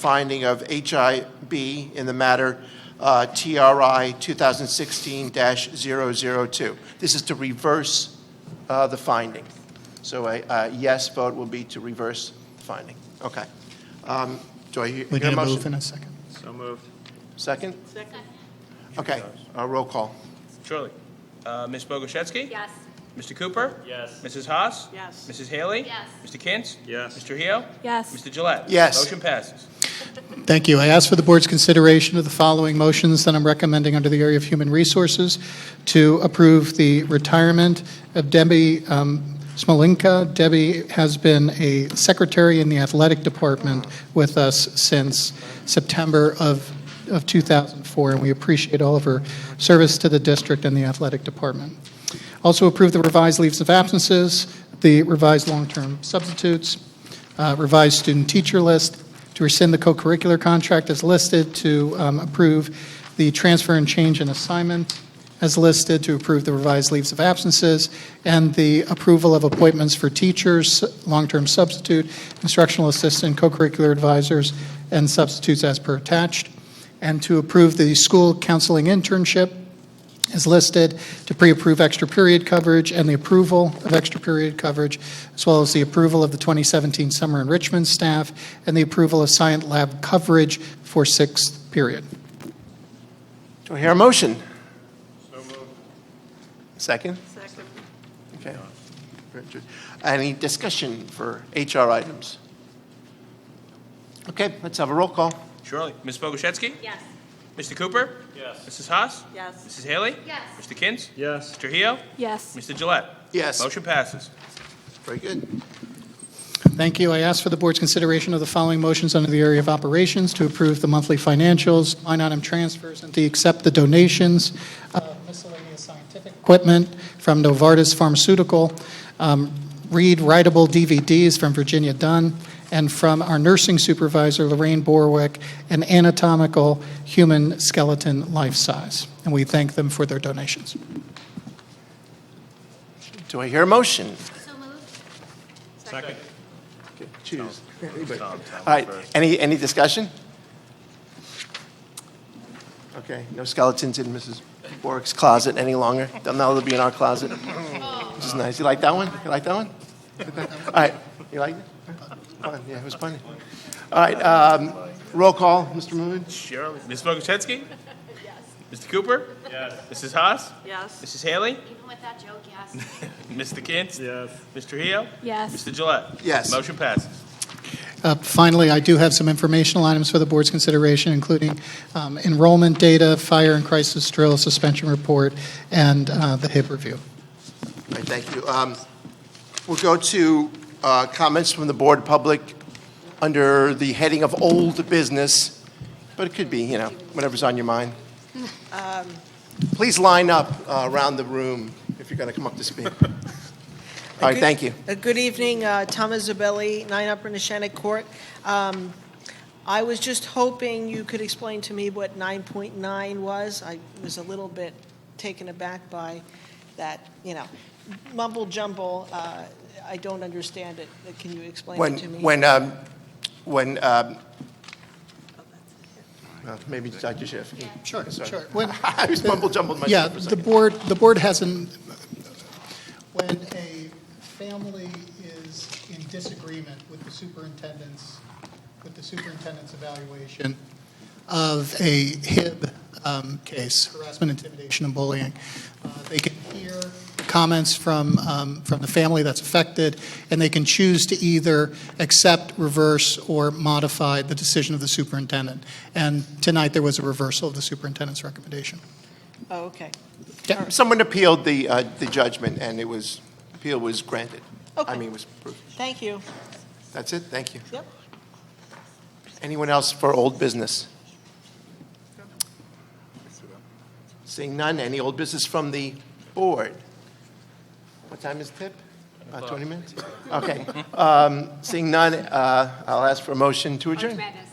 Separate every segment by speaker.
Speaker 1: finding of HIB in the matter uh, TRI 2016-002. This is to reverse uh, the finding. So a a yes vote will be to reverse the finding. Okay. Um, Do I hear
Speaker 2: We
Speaker 1: hear
Speaker 2: need
Speaker 1: a
Speaker 2: a move in
Speaker 1: motion?
Speaker 2: a second.
Speaker 3: So moved.
Speaker 1: Second? Second. Okay, uh, roll call.
Speaker 4: Surely. Uh, Ms. Bogoshevsky?
Speaker 5: Yes.
Speaker 4: Mr. Cooper?
Speaker 3: Yes.
Speaker 4: Mrs. Haas?
Speaker 5: Yes.
Speaker 4: Mrs. Haley?
Speaker 5: Yes.
Speaker 4: Mr. Kintz?
Speaker 3: Yes.
Speaker 4: Mr. Hio?
Speaker 5: Yes.
Speaker 4: Mr. Gillette?
Speaker 1: Yes.
Speaker 4: Motion passes.
Speaker 2: Thank you. I ask for the board's consideration of the following motions that I'm recommending under the area of human resources to approve the retirement of Debbie um, Smolinka. Debbie has been a secretary in the athletic department with us since September of of 2004, and we appreciate all of her service to the district and the athletic department. Also approve the revised leaves of absences, the revised long-term substitutes, uh, revised student-teacher list, to rescind the co-curricular contract as listed, to um, approve the transfer and change in assignment as listed, to approve the revised leaves of absences, and the approval of appointments for teachers, long-term substitute, instructional assistant, co-curricular advisors, and substitutes as per attached, and to approve the school counseling internship is listed to pre-approve extra period coverage and the approval of extra period coverage, as well as the approval of the 2017 summer enrichment staff and the approval of science lab coverage for sixth period.
Speaker 1: Do I hear a motion? So moved. Second?
Speaker 5: Second.
Speaker 1: Okay. Richard. Any discussion for HR items? Okay, let's have a roll call.
Speaker 4: Surely. Ms. Bogoshevsky?
Speaker 5: Yes.
Speaker 4: Mr. Cooper?
Speaker 3: Yes.
Speaker 4: Mrs. Haas?
Speaker 5: Yes.
Speaker 4: Mrs. Haley?
Speaker 5: Yes.
Speaker 4: Mr. Kintz?
Speaker 3: Yes.
Speaker 4: Mr. Hio?
Speaker 5: Yes.
Speaker 4: Mr. Gillette?
Speaker 1: Yes.
Speaker 4: Motion passes.
Speaker 1: Very good.
Speaker 2: Thank you. I ask for the board's consideration of the following motions under the area of operations to approve the monthly financials, line item transfers, and to accept the donations of miscellaneous scientific equipment from Novartis Pharmaceutical, um, read writable DVDs from Virginia Dunn, and from our nursing supervisor, Lorraine Borwick, an anatomical human skeleton life size. And we thank them for their donations.
Speaker 1: Do I hear a motion?
Speaker 5: So moved.
Speaker 3: Second.
Speaker 1: Choose.
Speaker 4: Tom, Tom,
Speaker 1: All right,
Speaker 4: first.
Speaker 1: any, any discussion? Okay, no skeletons in Mrs. Bork's closet any longer. They'll now they'll be in our closet, which is nice. You like that one? You like that one? All right, you like it? Fun, yeah, it was funny. All right, um, roll call, Mr. Moon?
Speaker 4: Surely. Ms. Bogoshevsky? Yes. Mr. Cooper? Yes. Mrs. Haas?
Speaker 5: Yes.
Speaker 4: Mrs. Haley?
Speaker 5: Even with that joke, yes.
Speaker 4: Mr. Kintz?
Speaker 3: Yes.
Speaker 4: Mr. Hio?
Speaker 5: Yes.
Speaker 4: Mr. Gillette?
Speaker 1: Yes.
Speaker 4: Motion passes.
Speaker 2: Uh, Finally, I do have some informational items for the board's consideration, including um, enrollment data, fire and crisis drill, suspension report, and uh, the HIP review.
Speaker 1: All right, thank you. Um, We'll go to uh, comments from the board public under the heading of old business, but it could be, you know, whatever's on your mind.
Speaker 6: Um,
Speaker 1: Please line up uh, around the room if you're going to come up to speak. All right,
Speaker 6: Good-
Speaker 1: thank you.
Speaker 6: uh, Good evening, uh, Tom Isabelli, 9 Upper Neshanic Court. Um, I was just hoping you could explain to me what 9.9 was. I was a little bit taken aback by that, you know, mumble jumble. Uh, I don't understand it. Can you explain
Speaker 1: When,
Speaker 6: it to me?
Speaker 1: when, um, when, um, well, maybe Dr. Schiff.
Speaker 2: Sure,
Speaker 1: Sorry.
Speaker 2: sure. When-
Speaker 1: I was mumble jumbled
Speaker 2: Yeah,
Speaker 1: myself for a
Speaker 2: the
Speaker 1: second.
Speaker 2: board, the board hasn't, when a family is in disagreement with the superintendent's, with the superintendent's evaluation of a HIB um, case, harassment, intimidation, and bullying, uh, they can hear comments from, um, from the family that's affected, and they can choose to either accept, reverse, or modify the decision of the superintendent. And tonight, there was a reversal of the superintendent's recommendation.
Speaker 6: Oh, okay.
Speaker 1: Someone appealed the, uh, the judgment, and it was, appeal was granted. I
Speaker 6: Okay.
Speaker 1: mean, was approved.
Speaker 6: Thank you.
Speaker 1: That's it, thank you.
Speaker 6: Yep.
Speaker 1: Anyone else for old business? Seeing none, any old business from the board? What time is tip? About 20 minutes? Okay. Um, Seeing none, uh, I'll ask for a motion to
Speaker 7: March
Speaker 1: adjourn.
Speaker 7: Madness.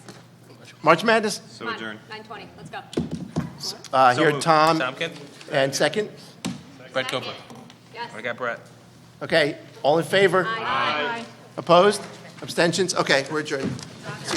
Speaker 1: March Madness,
Speaker 3: So adjourned.
Speaker 7: Nine twenty, let's go.
Speaker 1: Uh,
Speaker 4: So
Speaker 1: here,
Speaker 4: moved.
Speaker 1: Tom,
Speaker 4: Tom Kintz?
Speaker 1: and second?
Speaker 4: Brett Cooper.
Speaker 7: Yes.
Speaker 4: I got Brett.
Speaker 1: Okay, all in favor?
Speaker 7: Aye.
Speaker 1: Opposed? Abstentions? Okay, we're adjourned.